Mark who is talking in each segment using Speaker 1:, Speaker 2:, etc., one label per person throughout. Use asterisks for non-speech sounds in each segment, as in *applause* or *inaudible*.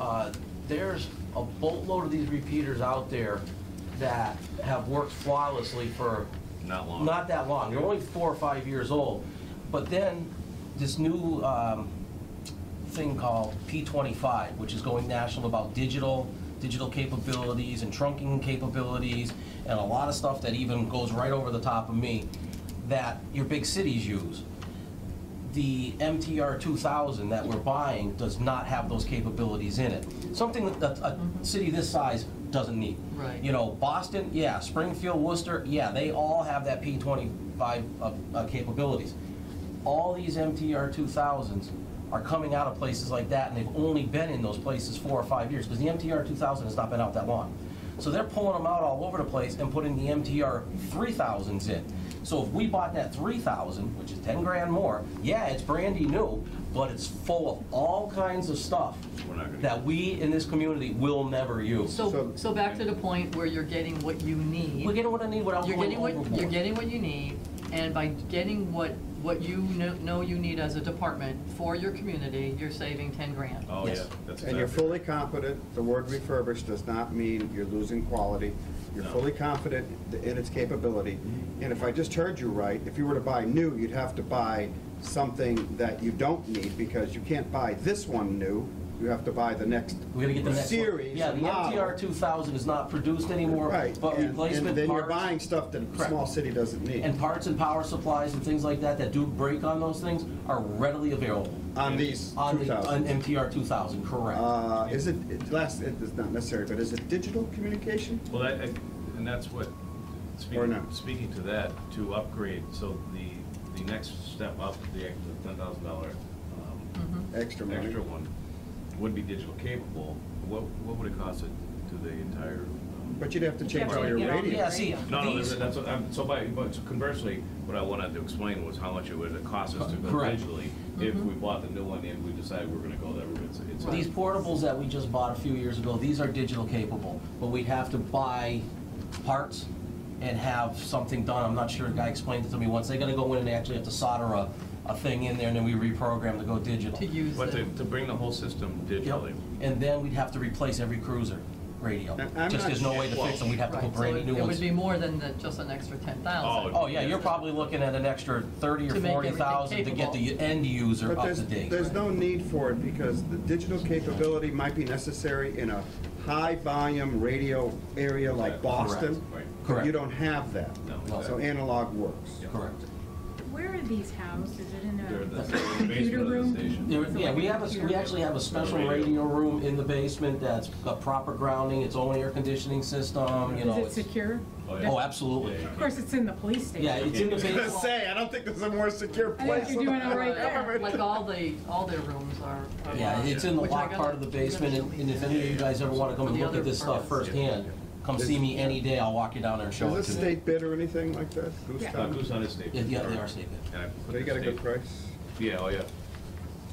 Speaker 1: uh, there's a boatload of these repeaters out there that have worked flawlessly for
Speaker 2: Not long.
Speaker 1: not that long. They're only four or five years old. But then this new um, thing called P25, which is going national about digital, digital capabilities and trunking capabilities and a lot of stuff that even goes right over the top of me that your big cities use. The MTR 2000 that we're buying does not have those capabilities in it. Something that a, a city this size doesn't need.
Speaker 3: Right.
Speaker 1: You know, Boston, yeah, Springfield, Worcester, yeah, they all have that P25 uh, uh, capabilities. All these MTR 2000s are coming out of places like that, and they've only been in those places four or five years, because the MTR 2000 has not been out that long. So they're pulling them out all over the place and putting the MTR 3000s in. So if we bought that 3000, which is 10 grand more, yeah, it's brandy new, but it's full of all kinds of stuff
Speaker 2: We're not gonna-
Speaker 1: that we in this community will never use.
Speaker 3: So,
Speaker 4: So-
Speaker 3: so back to the point where you're getting what you need.
Speaker 1: We're getting what I need without
Speaker 3: You're
Speaker 1: going
Speaker 3: getting
Speaker 1: overboard.
Speaker 3: what, you're getting what you need, and by getting what, what you kn- know you need as a department for your community, you're saving ten grand.
Speaker 2: Oh, yeah,
Speaker 1: Yes.
Speaker 2: that's
Speaker 4: And you're
Speaker 2: exactly-
Speaker 4: fully confident, the word refurbished does not mean you're losing quality. You're
Speaker 2: No.
Speaker 4: fully confident in its capability. And if I just heard you right, if you were to buy new, you'd have to buy something that you don't need because you can't buy this one new. You have to buy the next
Speaker 1: We're gonna get the next one.
Speaker 4: series.
Speaker 1: Yeah, the
Speaker 4: model.
Speaker 1: MTR 2000 is not produced anymore,
Speaker 4: Right.
Speaker 1: but
Speaker 4: and-
Speaker 1: replacement
Speaker 4: And then you're
Speaker 1: parts-
Speaker 4: buying stuff that a
Speaker 1: Correct.
Speaker 4: small city doesn't need.
Speaker 1: and parts and power supplies and things like that that do break on those things are readily available
Speaker 4: On these
Speaker 1: on the on
Speaker 4: 2,000.
Speaker 1: MTR 2000, correct?
Speaker 4: Uh, Is it, it last, it's not necessary, but is it digital communication?
Speaker 2: Well, that, I- and that's what,
Speaker 4: Or
Speaker 2: speaking,
Speaker 4: not.
Speaker 2: speaking to that, to upgrade, so the, the next step up, the ten thousand dollar um,
Speaker 1: Mm-hmm.
Speaker 4: Extra money?
Speaker 2: extra one, would be digital capable, what, what would it cost it to the entire? um,
Speaker 4: But you'd have to
Speaker 5: You'd
Speaker 4: change
Speaker 5: have to
Speaker 4: all your
Speaker 5: get all the-
Speaker 4: radios.
Speaker 1: yeah, see,
Speaker 5: radio.
Speaker 2: No, no,
Speaker 1: these,
Speaker 2: that's- that's, what I'm- so by, but conversely, what I wanted to explain was how much it would cost us to go
Speaker 1: Correct.
Speaker 2: digitally
Speaker 1: Mm-hmm.
Speaker 2: if we bought the new one and we decided we're gonna go that route. It's- it's-
Speaker 1: these portables that we just bought a few years ago, these are digital capable, but we'd have to buy parts and have something done. I'm not sure, a guy explained it to me once. They're gonna go in and they actually have to solder a, a thing in there and then we reprogram to go digital.
Speaker 3: To use
Speaker 2: But to,
Speaker 3: the,
Speaker 2: to bring the whole system
Speaker 1: Yep,
Speaker 2: digitally.
Speaker 1: and then we'd have to replace every cruiser radio.
Speaker 4: And I'm
Speaker 1: Just
Speaker 4: not
Speaker 1: there's no way to
Speaker 2: sure-
Speaker 1: fix them, we'd have to
Speaker 3: right,
Speaker 1: put
Speaker 3: so
Speaker 1: brand new
Speaker 3: it
Speaker 1: new
Speaker 3: it
Speaker 1: ones.
Speaker 3: would be more than the, just an extra ten thousand.
Speaker 1: Oh, yeah, you're probably looking at an extra thirty or
Speaker 3: To make
Speaker 1: forty
Speaker 3: everything
Speaker 1: thousand to get the end user
Speaker 4: But
Speaker 1: up
Speaker 4: there's,
Speaker 1: to date.
Speaker 4: there's no need for it because the digital capability might be necessary in a high-volume radio area like
Speaker 2: Correct.
Speaker 4: Boston.
Speaker 2: Right.
Speaker 4: But
Speaker 1: Correct.
Speaker 4: you don't have that.
Speaker 2: No,
Speaker 4: So
Speaker 2: exactly.
Speaker 4: analog works. *laughs*
Speaker 2: Yeah.
Speaker 1: Correct.
Speaker 5: Where are these housed? Is it in
Speaker 2: They're in the
Speaker 5: a
Speaker 2: basement
Speaker 5: computer
Speaker 2: of the
Speaker 5: room?
Speaker 2: station.
Speaker 1: There- Yeah, we have a, we actually have a special radio room in the basement that's got proper grounding, its own air conditioning system, you
Speaker 5: Is
Speaker 1: know.
Speaker 5: it
Speaker 1: it's-
Speaker 5: secure?
Speaker 2: Oh, yeah.
Speaker 1: Oh, absolutely.
Speaker 5: Of course, it's in the police station.
Speaker 1: Yeah, it's in the
Speaker 4: I was *laughs* gonna
Speaker 1: basement.
Speaker 4: say, I don't think there's a more secure
Speaker 5: I think
Speaker 4: place.
Speaker 5: you're doing it right
Speaker 3: Like
Speaker 4: *laughs*
Speaker 5: there.
Speaker 3: uh, like all the, all their rooms are. are
Speaker 1: Yeah,
Speaker 3: locked,
Speaker 1: it's in the
Speaker 3: which I
Speaker 1: locked
Speaker 3: gotta-
Speaker 1: part of the basement, and and if any of you guys ever wanna come and
Speaker 3: The
Speaker 1: look at
Speaker 3: other
Speaker 1: this stuff
Speaker 3: part.
Speaker 1: firsthand, come see me any day, I'll walk you down there and show it
Speaker 4: Is
Speaker 1: to
Speaker 4: this
Speaker 1: you.
Speaker 4: state bid or anything like that? Goose
Speaker 5: Yeah.
Speaker 2: Uh,
Speaker 4: Town?
Speaker 2: Goose Hunt is state.
Speaker 1: Yeah, yeah, they are state.
Speaker 2: And I put
Speaker 4: They
Speaker 2: the
Speaker 4: got a good
Speaker 2: state-
Speaker 4: price?
Speaker 2: Yeah, oh, yeah.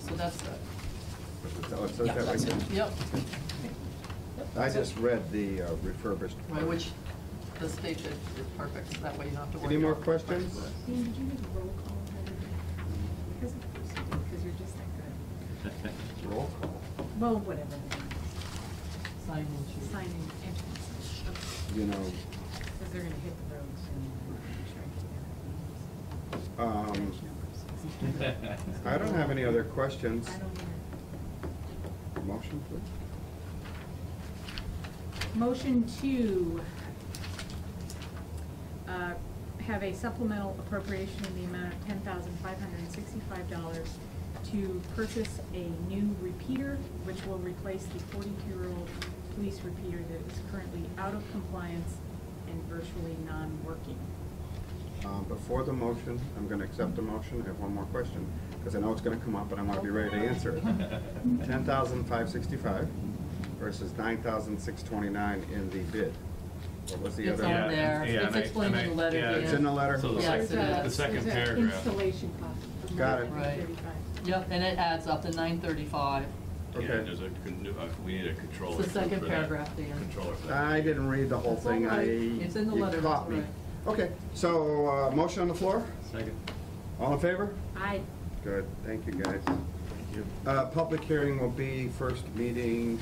Speaker 3: So that's, the-
Speaker 4: Oh, it says
Speaker 1: Yeah,
Speaker 4: that right
Speaker 1: that's it.
Speaker 4: there.
Speaker 3: yep,
Speaker 4: I just read the uh, refurbished.
Speaker 3: right, which the state is is perfect, that way you don't have to worry.
Speaker 4: Any more
Speaker 3: about-
Speaker 4: questions?
Speaker 5: Dean, did you make a roll call? Because you're just that
Speaker 4: Roll call.
Speaker 5: good. Well, whatever.
Speaker 3: Sign in, chief.
Speaker 5: Signing entrances.
Speaker 4: You know,
Speaker 5: Because they're going to hit the road soon.
Speaker 4: um,
Speaker 2: *laughs*
Speaker 5: *laughs*
Speaker 4: I don't have any other questions.
Speaker 5: I don't either.
Speaker 4: Motion, please.
Speaker 5: Motion to uh, have a supplemental appropriation in the amount of ten thousand five hundred and sixty-five dollars to purchase a new repeater, which will replace the forty-two-year-old police repeater that is currently out of compliance and virtually non-working.
Speaker 4: Um, Before the motion, I'm going to accept the motion, I have one more question, because I know it's going to come up, and I want to be ready to answer it.
Speaker 2: *laughs*
Speaker 4: Ten thousand five sixty-five versus nine thousand six twenty-nine in the bid. What was the
Speaker 3: It's
Speaker 4: other?
Speaker 3: on
Speaker 2: Yeah,
Speaker 3: there,
Speaker 2: yeah,
Speaker 3: it's
Speaker 2: and I-
Speaker 3: explained
Speaker 2: and
Speaker 3: in the
Speaker 2: I-
Speaker 3: letter,
Speaker 2: yeah,
Speaker 3: Dan.
Speaker 4: It's in the letter?
Speaker 2: So the
Speaker 3: Yes,
Speaker 2: second,
Speaker 3: it
Speaker 2: the
Speaker 3: is.
Speaker 2: second
Speaker 5: There's a
Speaker 2: paragraph.
Speaker 5: Installation cost. of
Speaker 4: Got it.
Speaker 5: $135.
Speaker 3: Yep, and it adds up to nine thirty-five.
Speaker 2: Yeah,
Speaker 4: Okay.
Speaker 2: there's a, con- new- uh, we need a controller.
Speaker 3: It's the second
Speaker 2: for that.
Speaker 3: paragraph, Dan.
Speaker 2: Controller for that.
Speaker 4: I didn't read the whole
Speaker 3: It's
Speaker 4: thing,
Speaker 3: all
Speaker 4: I.
Speaker 3: right. It's in the
Speaker 4: you
Speaker 3: letter, it's
Speaker 4: caught
Speaker 3: all
Speaker 4: me.
Speaker 3: right.
Speaker 4: Okay, so, uh, motion on the floor,
Speaker 2: Second.
Speaker 4: all in favor?
Speaker 5: I,
Speaker 4: Good, thank you, guys. Uh, Public hearing will be first meeting,